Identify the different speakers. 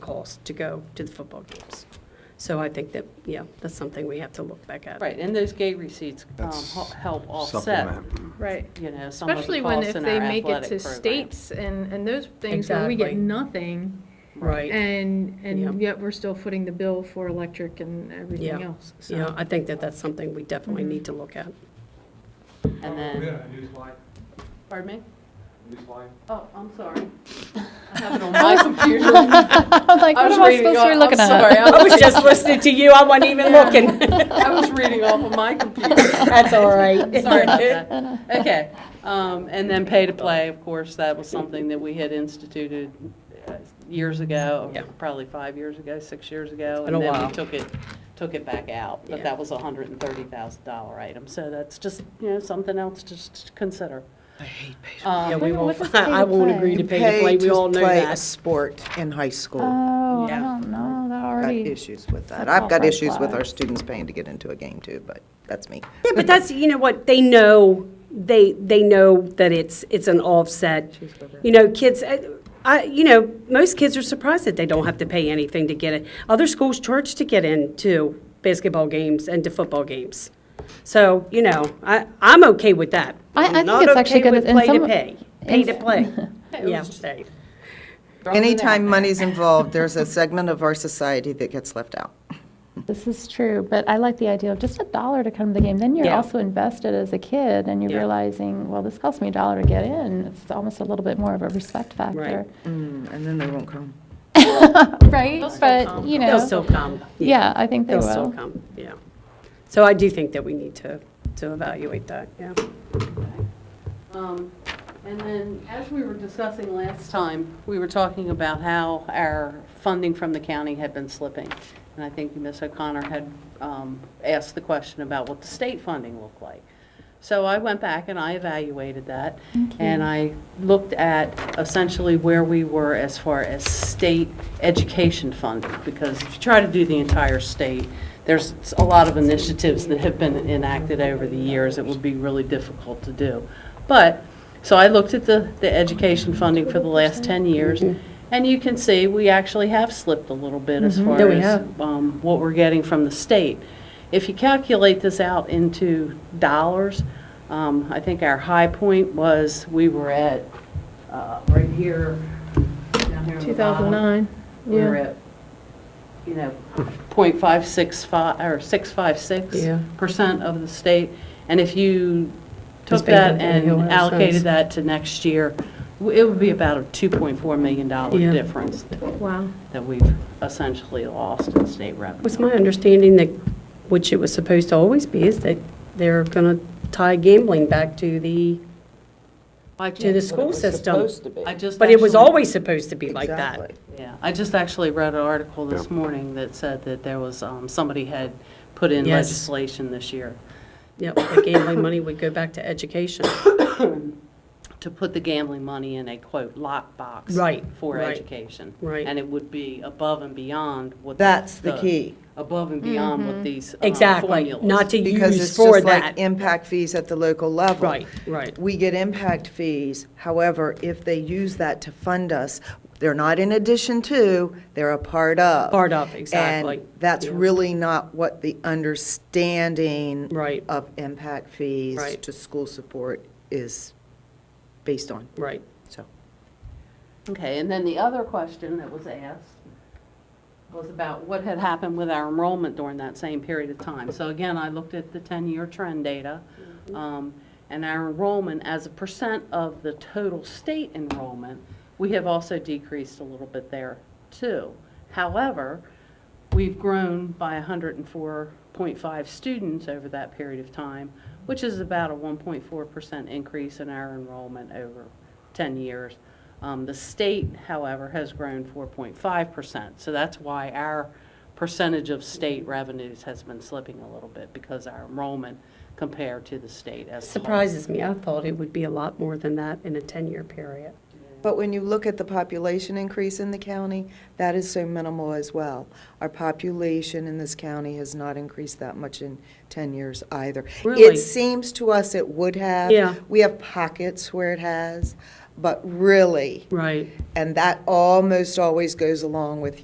Speaker 1: calls to go to the football games. So I think that, yeah, that's something we have to look back at.
Speaker 2: Right, and those gate receipts um,
Speaker 3: That's
Speaker 2: hel- help offset,
Speaker 3: Supplement.
Speaker 4: Right.
Speaker 2: you know, some of
Speaker 4: Especially
Speaker 2: the
Speaker 4: when
Speaker 2: costs
Speaker 4: if
Speaker 2: in
Speaker 4: they
Speaker 2: our
Speaker 4: make it
Speaker 2: athletic
Speaker 4: to
Speaker 2: programs.
Speaker 4: states and, and those things, where we get
Speaker 1: Exactly.
Speaker 4: nothing.
Speaker 1: Right.
Speaker 4: And,
Speaker 1: Yeah.
Speaker 4: and yet we're still footing the bill for electric and everything
Speaker 1: Yeah.
Speaker 4: else,
Speaker 1: Yeah,
Speaker 4: so.
Speaker 1: I think that that's something we definitely need to look at.
Speaker 2: And
Speaker 5: We
Speaker 2: then,
Speaker 5: had a news line,
Speaker 2: pardon me?
Speaker 5: news line.
Speaker 2: Oh, I'm sorry. I have it on my computer.
Speaker 6: I'm like,
Speaker 2: I
Speaker 6: what
Speaker 2: was
Speaker 6: am I
Speaker 2: reading
Speaker 6: supposed to
Speaker 2: off-
Speaker 6: be looking
Speaker 2: I'm
Speaker 6: at?
Speaker 2: sorry, I
Speaker 1: I
Speaker 2: was-
Speaker 1: was just listening to you, I wasn't even looking.
Speaker 2: I was reading off of my computer.
Speaker 1: That's all right.
Speaker 2: Sorry about that. Okay, um, and then pay to play, of course, that was something that we had instituted uh, years ago,
Speaker 1: Yeah.
Speaker 2: probably five years ago, six years ago.
Speaker 1: been a
Speaker 2: And then
Speaker 1: while.
Speaker 2: we took it, took it back out, but
Speaker 1: Yeah.
Speaker 2: that was a hundred and thirty thousand dollar item, so that's just, you know, something else to just to consider.
Speaker 1: Yeah,
Speaker 2: Um,
Speaker 1: we
Speaker 6: Wait, what
Speaker 1: won't,
Speaker 6: does pay to
Speaker 1: I won't
Speaker 6: play?
Speaker 1: agree to
Speaker 7: You
Speaker 1: pay to play, we all know
Speaker 7: Pay to play a
Speaker 1: that.
Speaker 7: sport in high school.
Speaker 6: Oh, I
Speaker 1: Yeah.
Speaker 6: don't know, that
Speaker 7: I've Got
Speaker 6: already.
Speaker 7: issues with that.
Speaker 6: that's
Speaker 7: I've
Speaker 6: all
Speaker 7: got
Speaker 6: red
Speaker 7: issues with our
Speaker 6: flags.
Speaker 7: students paying to get into a game too, but that's me.
Speaker 1: Yeah, but that's, you know what, they know, they, they know that it's, it's an offset. You know, kids, uh, I, you know, most kids are surprised that they don't have to pay anything to get it. Other schools charge to get into basketball games and to football games. So, you know, I, I'm okay with that.
Speaker 6: I- I
Speaker 1: I'm
Speaker 6: think
Speaker 1: not
Speaker 6: it's actually
Speaker 1: okay
Speaker 6: good
Speaker 1: with
Speaker 6: in
Speaker 1: Play to
Speaker 6: some-
Speaker 1: pay, pay to
Speaker 6: in-
Speaker 1: play.
Speaker 2: It
Speaker 1: Yeah,
Speaker 2: was just-
Speaker 1: say.
Speaker 2: throwing it
Speaker 7: Anytime
Speaker 2: out
Speaker 7: money's involved, there's a segment of our society that gets left out.
Speaker 6: This is true, but I like the idea of just a dollar to come to the game. Then you're
Speaker 1: Yeah.
Speaker 6: also invested as a kid and you're
Speaker 1: Yeah.
Speaker 6: realizing, well, this cost me a dollar to get in. It's almost a little bit more of a respect factor.
Speaker 7: Mm, And then they won't come.
Speaker 6: Right? But, you
Speaker 1: They'll
Speaker 6: know,
Speaker 1: still come.
Speaker 6: yeah, I think they
Speaker 1: They'll still
Speaker 6: will.
Speaker 1: come, yeah. So I do think that we need to, to evaluate that, yeah.
Speaker 2: Um, And then, as we were discussing last time, we were talking about how our funding from the county had been slipping. And I think Ms. O'Connor had um, asked the question about what the state funding looked like. So I went back and I evaluated that. And I looked at essentially where we were as far as state education funding. Because if you try to do the entire state, there's a lot of initiatives that have been enacted over the years that would be really difficult to do. But, so I looked at the, the education funding for the last 10 years,
Speaker 1: Mhm.
Speaker 2: and you can see, we actually have slipped a little bit as far
Speaker 1: Mm-hmm. Yeah, we
Speaker 2: as
Speaker 1: have.
Speaker 2: um, what we're getting from the state. If you calculate this out into dollars, um, I think our high point was, we were at, uh, right here, down here at the bottom.
Speaker 4: 2009,
Speaker 2: We were
Speaker 4: yeah.
Speaker 2: at, you know, point five six five, or six five six
Speaker 1: Yeah.
Speaker 2: percent of the state. And if you
Speaker 1: Just
Speaker 2: took
Speaker 1: based on
Speaker 2: that
Speaker 1: the annual
Speaker 2: and
Speaker 1: assessments.
Speaker 2: allocated that to next year, w- it would be about a two point four million dollar
Speaker 1: Yeah.
Speaker 2: difference
Speaker 4: Wow.
Speaker 2: that we've essentially lost in state revenue.
Speaker 1: Was my understanding that, which it was supposed to always be, is that they're going to tie gambling back to the,
Speaker 2: I
Speaker 1: to the
Speaker 2: just,
Speaker 1: school system?
Speaker 2: I just
Speaker 1: But it was
Speaker 2: actually-
Speaker 1: always supposed to be like that.
Speaker 2: Yeah, I just actually read an article this morning that said that there was, um, somebody had put in
Speaker 1: Yes.
Speaker 2: legislation this year
Speaker 1: Yep, the gambling money would go back to education.
Speaker 2: to put the gambling money in a quote lockbox.
Speaker 1: Right,
Speaker 2: For
Speaker 1: right,
Speaker 2: education.
Speaker 1: right.
Speaker 2: And it would be above and beyond what. the-
Speaker 7: That's the key.
Speaker 2: Above and beyond what these. um,
Speaker 1: Mm-hmm. Exactly,
Speaker 2: formulas.
Speaker 1: not to
Speaker 7: Because
Speaker 1: use
Speaker 7: it's
Speaker 1: for
Speaker 7: just like
Speaker 1: that.
Speaker 7: impact fees at the local level.
Speaker 1: Right, right.
Speaker 7: We get impact fees, however, if they use that to fund us, they're not in addition to, they're a part of.
Speaker 1: Part of, exactly.
Speaker 7: And that's
Speaker 1: Yeah.
Speaker 7: really not what the understanding
Speaker 1: Right.
Speaker 7: of impact fees
Speaker 1: Right.
Speaker 7: to school support is based on,
Speaker 1: Right.
Speaker 7: so.
Speaker 2: Okay, and then the other question that was asked was about what had happened with our enrollment during that same period of time. So again, I looked at the 10-year trend data, um, and our enrollment as a percent of the total state enrollment, we have also decreased a little bit there too. However, we've grown by 104.5 students over that period of time, which is about a 1.4% increase in our enrollment over 10 years. Um, The state, however, has grown 4.5%. So that's why our percentage of state revenues has been slipping a little bit because our enrollment compared to the state as a whole.
Speaker 1: Surprises me, I thought it would be a lot more than that in a 10-year period.
Speaker 7: But when you look at the population increase in the county, that is so minimal as well. Our population in this county has not increased that much in 10 years either.
Speaker 1: Really?
Speaker 7: It seems to us it would have.
Speaker 1: Yeah.
Speaker 7: We have pockets where it has, but really,
Speaker 1: Right.
Speaker 7: and that almost always goes along with